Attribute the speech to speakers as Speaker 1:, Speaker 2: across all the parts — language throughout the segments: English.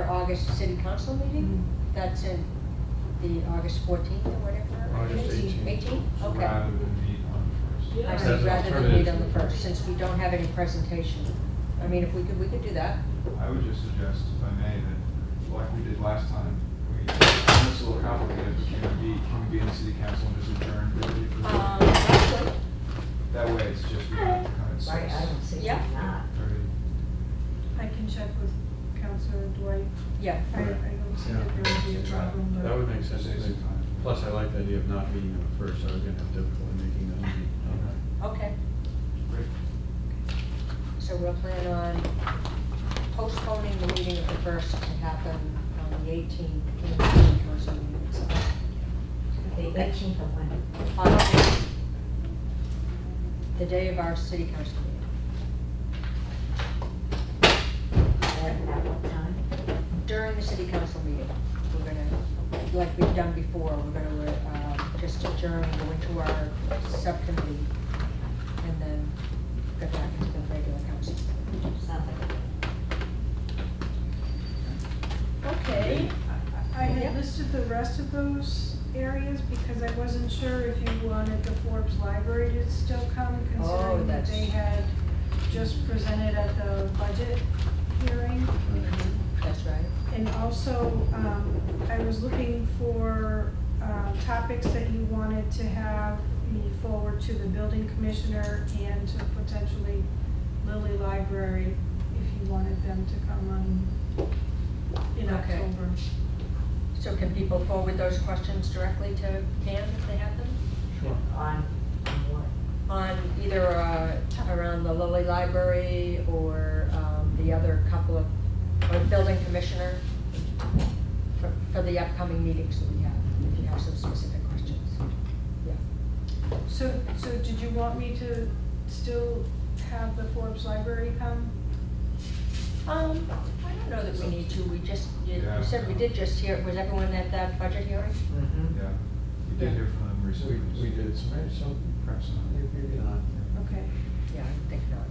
Speaker 1: August city council meeting? That's in the August 14th or whatever?
Speaker 2: August 18th.
Speaker 1: 18?
Speaker 2: So
Speaker 1: okay.
Speaker 2: Rather than meet on the first.
Speaker 1: I
Speaker 3: As
Speaker 1: said
Speaker 3: an
Speaker 1: rather than meet on the
Speaker 2: alternative.
Speaker 1: first, since we don't have any presentation. I mean, if we could, we could do that.
Speaker 2: I would just suggest, if I may, that like we did last time, we, it's a little complicated, but can we be, can we be in the city council and just adjourn? really for-
Speaker 1: Um, that's good.
Speaker 2: That way, it's just, we don't have to come at
Speaker 3: Right, I
Speaker 2: six
Speaker 3: don't see
Speaker 1: Yeah.
Speaker 3: why not.
Speaker 2: thirty.
Speaker 4: I can check with Counselor Dwight.
Speaker 1: Yeah,
Speaker 4: I, I don't see that there would be a problem, but.
Speaker 5: That would make sense, I
Speaker 2: Saves some
Speaker 5: think.
Speaker 2: time.
Speaker 5: Plus, I like the idea of not meeting on the first, I was gonna have difficulty making that meeting.
Speaker 1: okay.
Speaker 2: Great.
Speaker 1: So we'll plan on postponing the meeting of the first to happen on the 18th in the city council meeting itself.
Speaker 3: The eighteenth of when?
Speaker 1: August, the day of our city council meeting,
Speaker 3: At at what time?
Speaker 1: during the city council meeting, we're gonna, like we've done before, we're gonna, uh, just adjourn, go into our subcommittee, and then go back into the regular council.
Speaker 3: Sounds like a
Speaker 1: Okay.
Speaker 4: I- I
Speaker 1: Yeah.
Speaker 4: had listed the rest of those areas because I wasn't sure if you wanted the Forbes Library to still come
Speaker 1: Oh,
Speaker 4: considering that
Speaker 1: that's-
Speaker 4: they had just presented at the budget hearing.
Speaker 1: That's right.
Speaker 4: And also, um, I was looking for, uh, topics that you wanted to have me forward to the building commissioner and to potentially Lilly Library, if you wanted them to come on in
Speaker 1: Okay.
Speaker 4: October.
Speaker 1: So can people forward those questions directly to Pam if they have them?
Speaker 5: Sure.
Speaker 3: On what?
Speaker 1: On either, uh, around the Lilly Library or, um, the other couple of, or building commissioner for, for the upcoming meetings that we have, if you have some specific questions. Yeah.
Speaker 4: So, so did you want me to still have the Forbes Library come?
Speaker 1: Um, I don't know that we need to, we just, you you
Speaker 2: Yeah.
Speaker 1: said we did just hear, was everyone at that budget hearing?
Speaker 2: Yeah, we did hear from them
Speaker 5: So
Speaker 2: recently.
Speaker 5: we, we did, so maybe some,
Speaker 2: Perhaps not.
Speaker 5: maybe not.
Speaker 4: Okay.
Speaker 1: Yeah, I think not.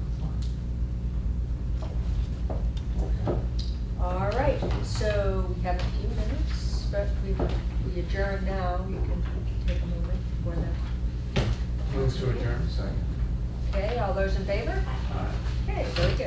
Speaker 1: All right, so we have a few minutes, but we, we adjourn now, you can take a moment for that.
Speaker 5: Move to adjourn.
Speaker 2: Second.
Speaker 1: Okay, all those in favor?
Speaker 5: Aye.
Speaker 1: Okay, so it's